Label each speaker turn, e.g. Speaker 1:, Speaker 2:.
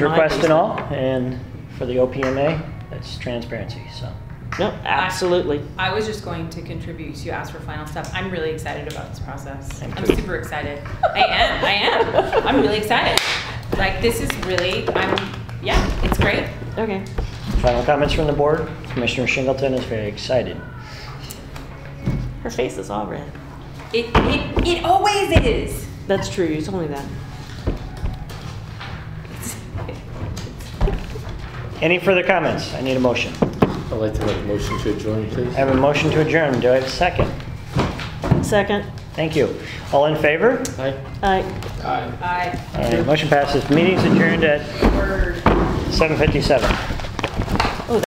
Speaker 1: request and all, and for the OPMA, that's transparency, so.
Speaker 2: No, absolutely.
Speaker 3: I was just going to contribute. You asked for final stuff. I'm really excited about this process.
Speaker 1: Thank
Speaker 3: I'm
Speaker 1: you.
Speaker 3: super excited. I am. I am. I'm really excited. Like this is really. I'm. Yeah, it's great.
Speaker 2: Okay.
Speaker 1: Final comments from the board? Commissioner Shingleton is very excited.
Speaker 2: Her face is all red.
Speaker 3: It it, it always is.
Speaker 2: That's true. You told me that.
Speaker 1: Any further comments? I need a motion.
Speaker 4: I'd like to make a motion to adjourn, please.
Speaker 1: I have a motion to adjourn. Do I have a second?
Speaker 2: Second.
Speaker 1: Thank you. All in favor?
Speaker 4: Aye.
Speaker 2: Aye.
Speaker 4: Aye.
Speaker 3: I
Speaker 1: All right, motion passes. Meeting's adjourned at
Speaker 3: word.
Speaker 1: 7:57.